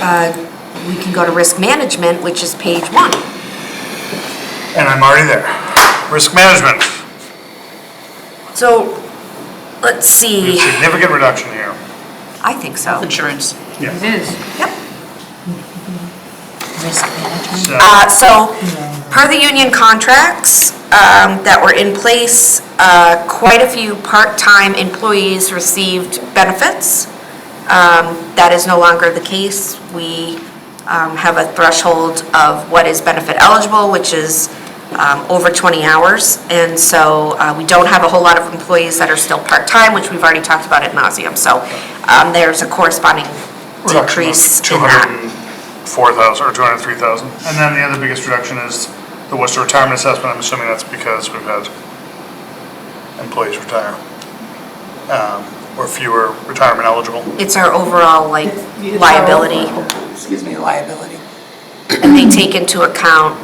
uh, we can go to risk management, which is page one. And I'm already there. Risk management, So, let's a see, significant reduction here. I think so. Insurance. Yes. Yep. Risk management. So, Uh, So, per the union contracts um, that were in place, uh, quite a few part-time employees received benefits. Um, That is no longer the case. We um, have a threshold of what is benefit eligible, which is um, over 20 hours. And so uh, we don't have a whole lot of employees that are still part-time, which we've already talked about at nauseam. So um, there's a corresponding reduction of decrease in that. 204,000 or 203,000. And then the other biggest reduction is the Worcester retirement assessment. I'm assuming that's because we've had employees retire. um, Or fewer retirement eligible. It's our overall like It's our liability. overall- Excuse me, liability. And they take into account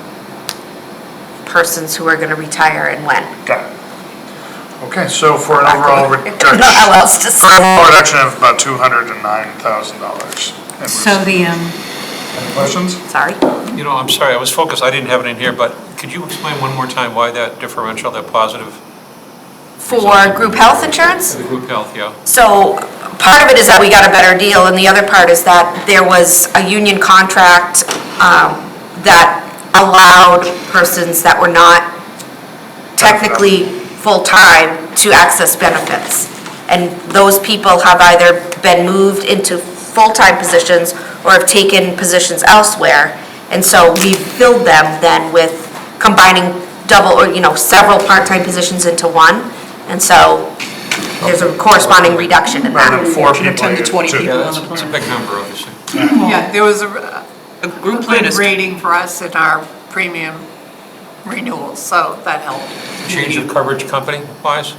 persons who are gonna retire and when. Got it. Okay, so for an overall I don't know reduction, how else to for an say. overall reduction of about $209,000. And So the, um, Any questions? Sorry. You know, I'm sorry, I was focused, I didn't have it in here, but could you explain one more time why that differential, that positive For group health insurance? to the group health, yeah? So part of it is that we got a better deal and the other part is that there was a union contract um, that allowed persons that were not technically full-time to access benefits. And those people have either been moved into full-time positions or have taken positions elsewhere. And so we filled them then with combining double, or, you know, several part-time positions into one. And so there's a corresponding reduction in Rather that. than four From people. 10 to you- 20 people. That's it's a big number, obviously. Yeah, there was a, a a group plan good is rating for us in our premium renewal, so that helped. Change of coverage company wise,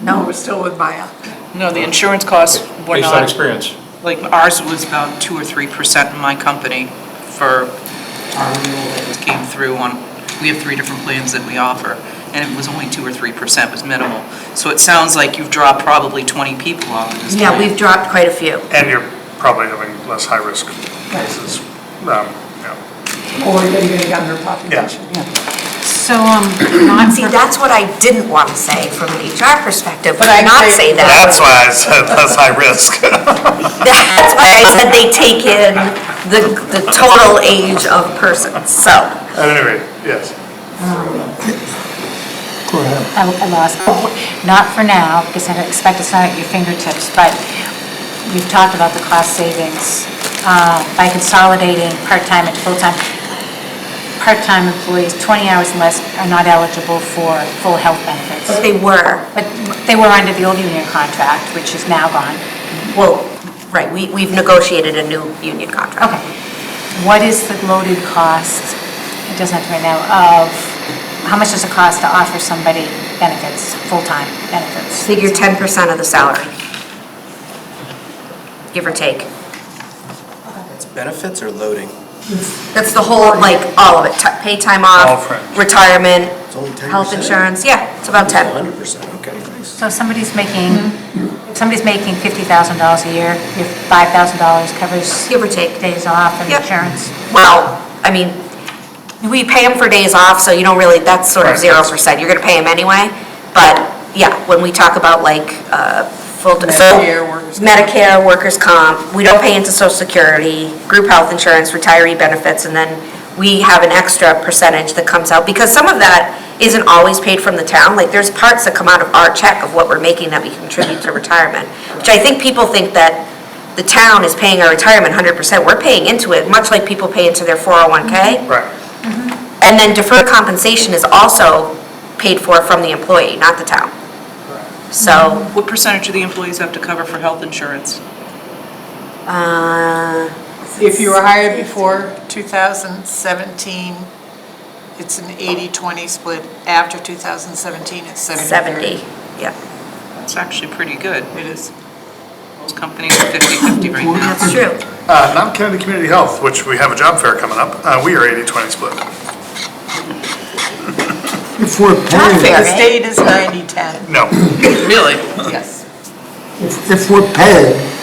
No, we're still with Maya. No, the insurance costs were based on not, experience. like ours was about 2 or 3% in my company for our renewal that was- came through on, we have three different plans that we offer, and it was only 2 or 3% was minimal. So it sounds like you've dropped probably 20 people off of this Yeah, plan. we've dropped quite a few. And you're probably having less high-risk cases. Um, yeah. Or you're gonna get under population, yeah. So, um, non, See, that's what I didn't want to say from an HR perspective, but But I I not agree. say that. That's why I said less high-risk. That's why I said they take in the, the total age of persons, so. At any rate, yes. I I lost, not for now, because I expect it's not at your fingertips, but we've talked about the cost savings uh, by consolidating part-time and full-time. Part-time employees, 20 hours and less, are not eligible for full health benefits. But they were, But they were under the old union contract, which is now gone. well, right, we, we've negotiated a new union contract. Okay. What is the loaded cost, it doesn't have to be right now, of, how much does it cost to offer somebody benefits, full-time benefits? Figure ten percent of the salary. Give or take. It's benefits or loading? That's the whole, like, all of it, Ti- pay time All off, fringe. retirement, It's only 10%? health insurance, yeah, it's about ten. Hundred percent, okay, nice. So if somebody's making, if somebody's making $50,000 a year, your $5,000 covers Give or take. days off and Yep. insurance. Well, I mean, we pay them for days off, so you don't really, that's sort of Right, zero that's- percent, you're gonna pay them anyway. But, yeah, when we talk about like, uh, full, so. Medicare, workers' comp. Medicare, workers' comp, we don't pay into social security, group health insurance, retiree benefits, and then we have an extra percentage that comes out, because some of that isn't always paid from the town, like, there's parts that come out of our check of what we're making that we contribute to retirement, which I think people think that the town is paying our retirement hundred percent, we're paying into it, much like people pay into their four oh one K. Right. And then deferred compensation is also paid for from the employee, not the town. So, What percentage of the employees have to cover for health insurance? uh, If you were hired before 2017, it's an 80-20 split. After 2017, it's 70 seventy, yeah. It's actually pretty good. It is. Most companies are 50/50 right now. That's true. Uh, Mount Kennedy Community Health, which we have a job fair coming up, uh, we are 80-20 split. If we're Not paying, fair, The eh? state is 90-10, No, Really? yes. if we're paying